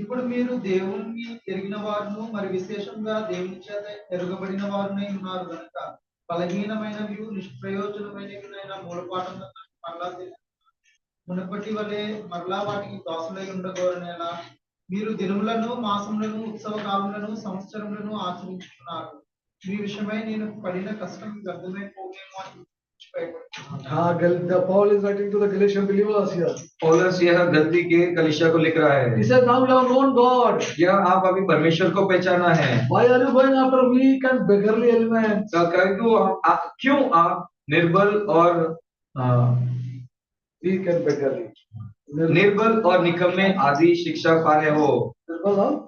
ఇప్పుడు మీరు దేవుణ్ణి ఎరిగిన వారును మరి విశేషంగా దేవుని చేత ఎరగబడిన వారునై ఉన్నారు కనుక బలహీనమైనవి నిష్ప్రయోజనమైనవినైన మూలపాఠం మరలా తిరిగి మునపటి వలె మరలా వాటికి దాసులై ఉండగోరనేలా మీరు దినములను మాసములను ఉత్సవ కాలములను సంవత్సరములను ఆచరించుకున్నారు మీ విషయమై నేను పడిన కష్టం వ్యర్థమైపోయేమో అని భయపడుతున్నాను. हाँ गल- the Paul is writing to the Galatian believers here. पॉलस यह गलती के कलिशा को लिख रहा He है said, now you have known God. यह आप अभी परमेश्वर को पहचाना है Why are you going after weak and beggarly elements? तो कह- क्यों आ- क्यों आप निर्बल और आ, Weak and beggarly. Nir- निर्बल और निकम्मे आदि शिक्षा पा रहे हो Nirbal और-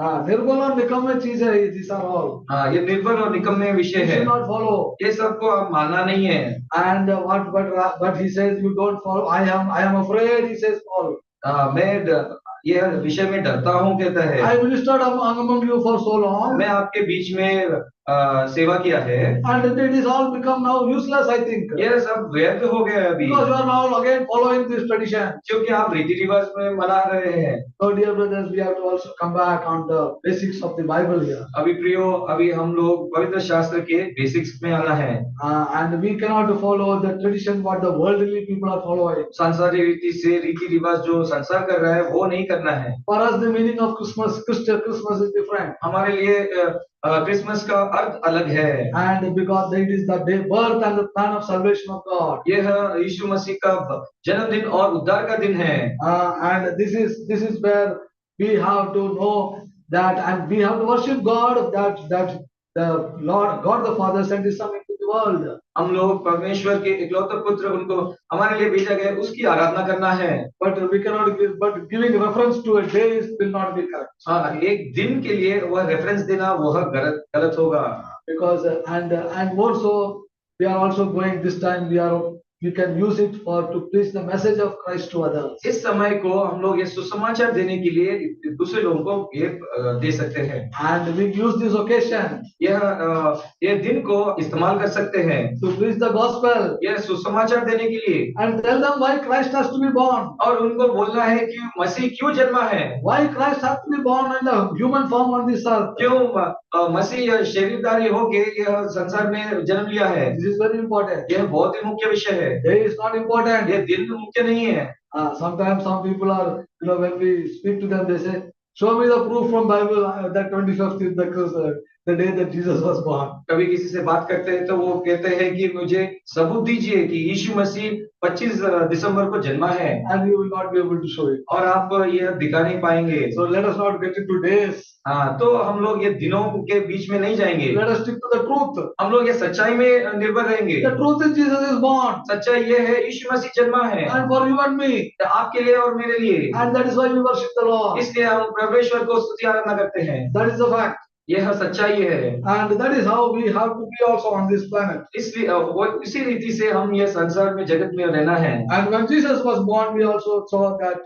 हाँ निर्बल और निकम्मे चीज है these are all. हाँ ये निर्बल और निकम्मे विषय You है should not follow. ये सबको आप मानना नहीं है And uh, what but ra- but he says you don't follow. I am I am afraid. He says Paul. आ, मैं ड- यह विषय में डरता हूँ कहता है I ministered among among you for so long, मैं आपके बीच में आ, सेवा किया है and it is all become now useless. I think यह सब व्यर्थ हो गया अभी because you are now again following this tradition. क्योंकि आप रीति रिवाज में मना रहे हैं So dear brothers, we have to also come back on the basics of the Bible here. अभी प्रियो अभी हम लोग पवित्र शास्त्र के बेसिक्स में आना है Uh, and we cannot follow the tradition what the worldly people are following. सांसारिक रीति से रीति रिवाज जो संसार कर रहा है वो नहीं करना है For us, the meaning of Christmas, Christian Christmas is different. हमारे लिए अ, अ, क्रिसमस का अर्थ अलग है And because it is the day birth and the plan of salvation of God. यह यीशु मसीह का ब- जन्मदिन और उद्धार का दिन है Uh, and this is this is where we have to know that and we have to worship God that that the Lord God the Father sent his son into the world. हम लोग परमेश्वर के इकलौते पुत्र उनको हमारे लिए भेजा गया उसकी आराधना करना है But we cannot give but giving reference to a day is- will not be correct. हाँ एक दिन के लिए वह रेफरेंस देना वह गलत गलत होगा because uh, and uh, and more so we are also going this time we are we can use it for to preach the message of christ to others इस समय को हम लोग ये सुसमाचार देने के लिए दूसरे लोगों को ये अ, दे सकते हैं and we use this occasion यह अ, यह दिन को इस्तेमाल कर सकते हैं to preach the gospel यह सुसमाचार देने के लिए and tell them why christ has to be born और उनको बोलना है कि मसीह क्यों जन्मा है why christ has to be born in the human form on this earth क्यों अ, मसीह यह शरीरदारी होके यह संसार में जन्म लिया है this is very important यह बहुत ही मुख्य विषय है day is not important यह दिन मुख्य नहीं है uh, sometimes some people are you know when we speak to them they say show me the proof from bible uh, that 25th is the, Christ- uh, the day that jesus was born कभी किसी से बात करते हैं तो वो कहते हैं कि मुझे सबूत दीजिए कि यीशु मसीह 25 दिसंबर को जन्मा है and you will not be able to show it और आप यह दिखा नहीं पाएंगे So let us not get into days. हाँ तो हम लोग ये दिनों के बीच में नहीं जाएंगे Let us stick to the truth. हम लोग ये सच्चाई में निर्भर रहेंगे The truth is Jesus is born सच्चाई ये है यीशु मसीह जन्मा है and for you and me. तो आपके लिए और मेरे लिए And that is why we worship the Lord. इसलिए हम परमेश्वर को स्तुति आराधना करते हैं That is the fact. यह सच्चाई है And that is how we have to be also on this planet. इसलिए अ, वो इसी रीति से हम ये संसार में जगत में रहना है And when Jesus was born, we also saw that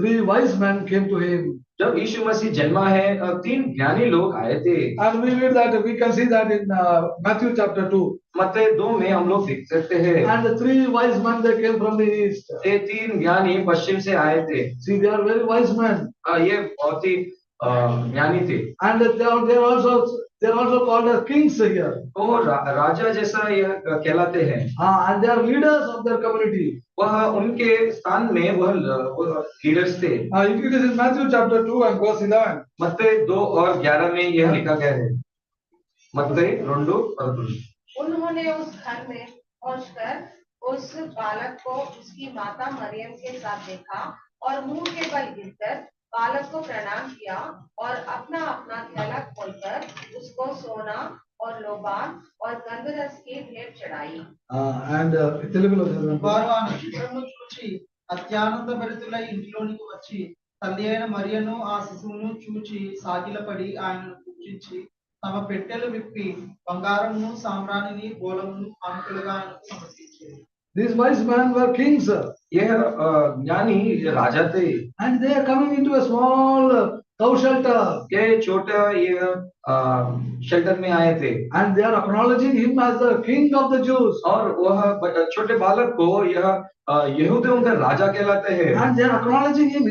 three wise men came to him. जब यीशु मसीह जन्मा है अ, तीन ज्ञानी लोग आए थे And we read that, we can see that in uh, Matthew chapter 2. मत्ते दो में हम लोग देख सकते हैं And the three wise men, they came from the east. ये तीन ज्ञानी पश्चिम से आए थे See, they are very wise men. अ, ये बहुत ही अ, ज्ञानी थे And they are, they are also they are also called as kings here. वो रा, राजा जैसा यह कहलाते हैं Ah, and they are leaders of their community. वह उनके स्थान में वह लीडर्स थे Uh, if it is in Matthew chapter 2 and verse 11, మత్తయి दो और ग्यारह में यह लिखा गया है मत्तई రెండు పదకొండు उन्होंने उस घर में पहुंचकर उस बालक को उसकी माता मरियम के साथ देखा और मुंह के बल गिरकर बालक को प्रणाम किया और अपना अपना थैला खोलकर उसको सोना और लोबान और गंधरस की भेंट चढ़ाई uh, and uh, తెలుగులో చదవండి. వారు ఆ నక్షత్రమును చూచి అత్యానంద భరితులై ఇంటిలోనికి వచ్చి తల్లి అయిన మరియను ఆ శిశువును చూచి సాగిలపడి ఆయనను పూజించి తమ పెట్టెలు విప్పి బంగారమును సామ్రాణిని గోళమును అంకులుగా ఆయనకు సమర్పించారు These wise men were kings uh, यह अ, ज्ञानी ये राजा थे and they are coming into a small uh, cow shelter. के छोटे ये शेल्टर में आए थे And they are acknowledging him as the king of the Jews. और वह ब- छोटे बालक को यह अ, यहूदियों का राजा कहलाते हैं हाँ And they are acknowledging him